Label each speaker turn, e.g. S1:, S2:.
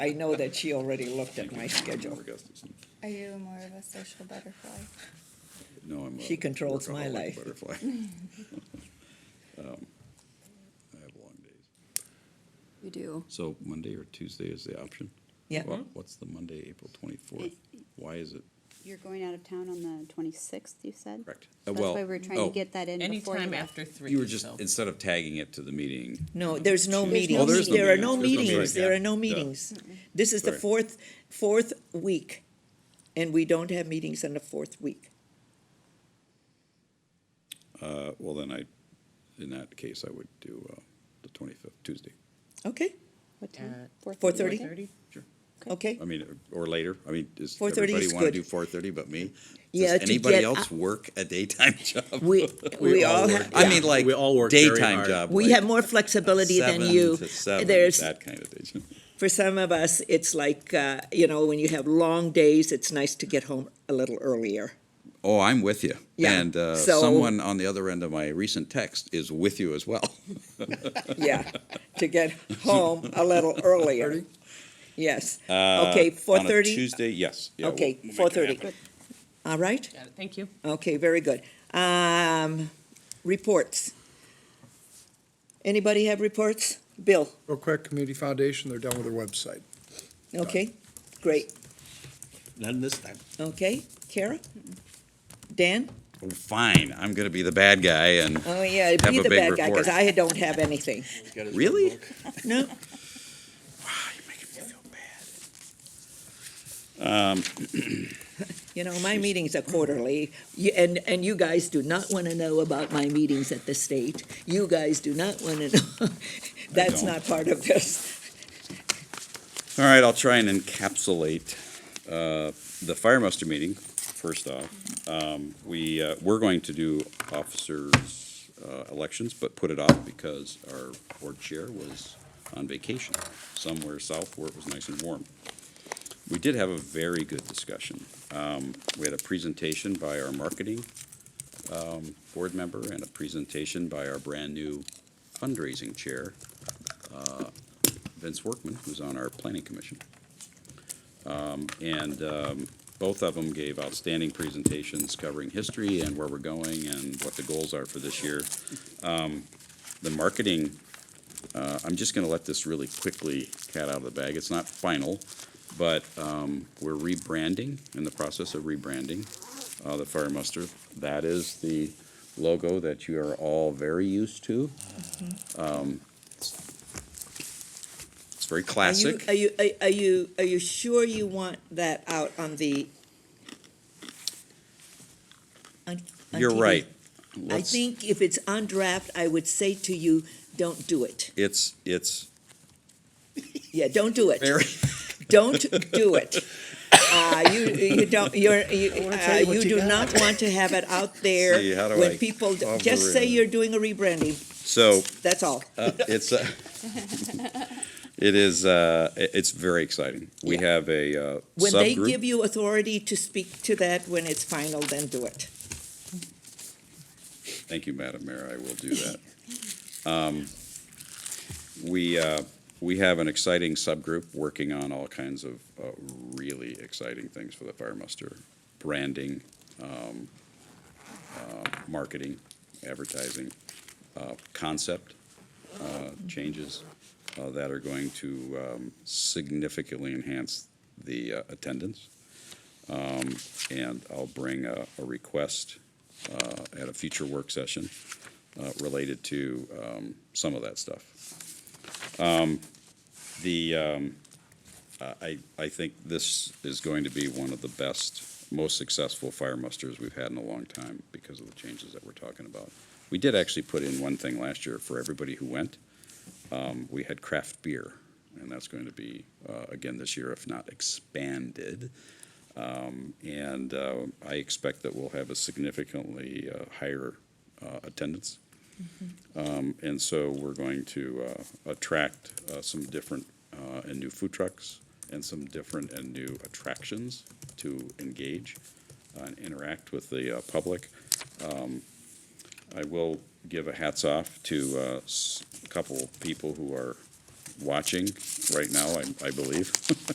S1: I know that she already looked at my schedule.
S2: Gustafson.
S3: Are you more of a social butterfly?
S2: No, I'm. a
S1: She controls my
S2: workaholic
S1: life.
S2: Butterfly. Um, I have long days.
S4: You do.
S2: So Monday or Tuesday is the option?
S1: Yeah.
S2: Wha- What's the Monday, April twenty-fourth? Why is it,
S4: You're going out of town on the 26th, you said?
S2: correct? Uh,
S4: That's
S2: well,
S4: why we were trying
S2: oh,
S4: to get that in before you
S5: Anytime
S4: left.
S5: after three.
S2: You were just,
S5: so-
S2: instead of tagging it to the meeting,
S1: No, there's no
S2: There's no
S1: meetings.
S4: Oh, there's no
S1: There are no meetings.
S2: meetings. There's no meetings,
S1: There
S2: yeah.
S1: are no
S2: Yeah.
S1: meetings. This is the
S2: Sorry.
S1: fourth, fourth week, and we don't have meetings on the fourth week.
S2: uh, well, then I, in that case, I would do, uh, the twenty-fifth, Tuesday.
S1: Okay,
S4: What time?
S5: Uh,
S1: 4:30?
S5: 4:30?
S2: Sure.
S1: okay.
S2: I mean, or later. I mean, does
S1: 4:30
S2: everybody
S1: is
S2: want to
S1: good.
S2: do four thirty but me?
S1: Yeah,
S2: Does
S1: to
S2: anybody
S1: get
S2: else
S1: up-
S2: work a daytime job?
S1: We, we all
S6: work.
S1: have,
S2: I mean, like
S6: We all work very
S2: daytime
S6: hard.
S2: job.
S1: we
S2: like
S1: have more flexibility than
S2: seven
S1: you.
S2: to seven,
S1: There's,
S2: that kind of thing.
S1: for some of us, it's like, uh, you know, when you have long days, it's nice to get home a little earlier.
S2: Oh, I'm with you.
S1: Yeah,
S2: And uh,
S1: so-
S2: someone on the other end of my recent text is with you as well.
S1: Yeah, to get home a little earlier. Yes. Okay, four
S2: Uh, On a
S1: thirty,
S2: Tuesday, yes. Yeah, we'll-
S1: okay,
S2: we'll make it
S1: four thirty.
S2: happen.
S1: All right?
S5: Got it, thank you.
S1: Okay, very good. Um, reports. Anybody have reports? Bill,
S7: Real quick, Community Foundation, they're done with their website.
S1: okay, great,
S6: None this time.
S1: okay, Kara? Dan?
S2: Oh, Fine, I'm going to be the bad guy and,
S1: Oh, yeah,
S2: Have
S1: be
S2: a
S1: the
S2: big
S1: bad guy, because
S2: report.
S1: I don't have anything.
S2: really?
S1: No,
S2: Um,
S1: you know, my meetings are quarterly, you- and, and you guys do not want to know about my meetings at the state. You guys do not want to know, that's
S2: don't.
S1: not part of this.
S2: All right, I'll try and encapsulate uh, the fire muster meeting, first off. Um, We, uh, we're going to do officers' uh, elections, but put it off because our board chair was on vacation somewhere south where it was nice and warm. We did have a very good discussion. Um, We had a presentation by our marketing um, board member and a presentation by our brand-new fundraising chair, Vince Workman, who's on our planning commission. Um, And um, both of them gave outstanding presentations covering history and where we're going and what the goals are for this year. Um, The marketing, uh, I'm just going to let this really quickly cat out of the bag. It's not final, but um, we're rebranding, in the process of rebranding, uh, the Fire Muster. That is the logo that you are all very used to. Um, It's very
S1: Mm-hmm. Are you,
S2: classic.
S1: are you, are- are you, are you sure you want that out on the? on- on
S2: You're
S1: TV?
S2: right.
S1: I
S2: Let's-
S1: think if it's on draft, I would say to you, don't do it.
S2: It's, it's
S1: Yeah, don't do it.
S2: very,
S1: Don't do it. Uh, you, you don't, you're, you, uh, you do not want to have it out there
S2: See, how do
S1: when
S2: I
S1: people, d-
S2: cover
S1: just say
S2: it?
S1: you're doing a rebranding,
S2: so,
S1: that's all.
S2: uh, it's, uh, it is, uh, i- it's very exciting. We
S1: Yeah.
S2: have a, uh,
S1: When they give
S2: subgroup.
S1: you authority to speak to that when it's final, then do it.
S2: Thank you, Madam Mayor, I will do that. Um, We, uh, we have an exciting subgroup working on all kinds of, uh, really exciting things for the fire muster. Branding, um, uh, marketing, advertising, uh, concept, uh, changes uh, that are going to um, significantly enhance the uh, attendance. Um, And I'll bring a a request uh, at a future work session uh, related to um, some of that stuff. Um, The, um, I, I- I think this is going to be one of the best, most successful fire musters we've had in a long time because of the changes that we're talking about. We did actually put in one thing last year for everybody who went. Um, We had craft beer, and that's going to be, uh, again, this year, if not expanded. Um, And uh, I expect that we'll have a significantly uh, higher uh, attendance. Um, And so we're going to uh, attract uh, some different uh, and new food trucks and some different and new attractions to engage and interact with the uh, public. Um, I will give a hats off to uh, s- a couple people who are watching right now, I, I believe.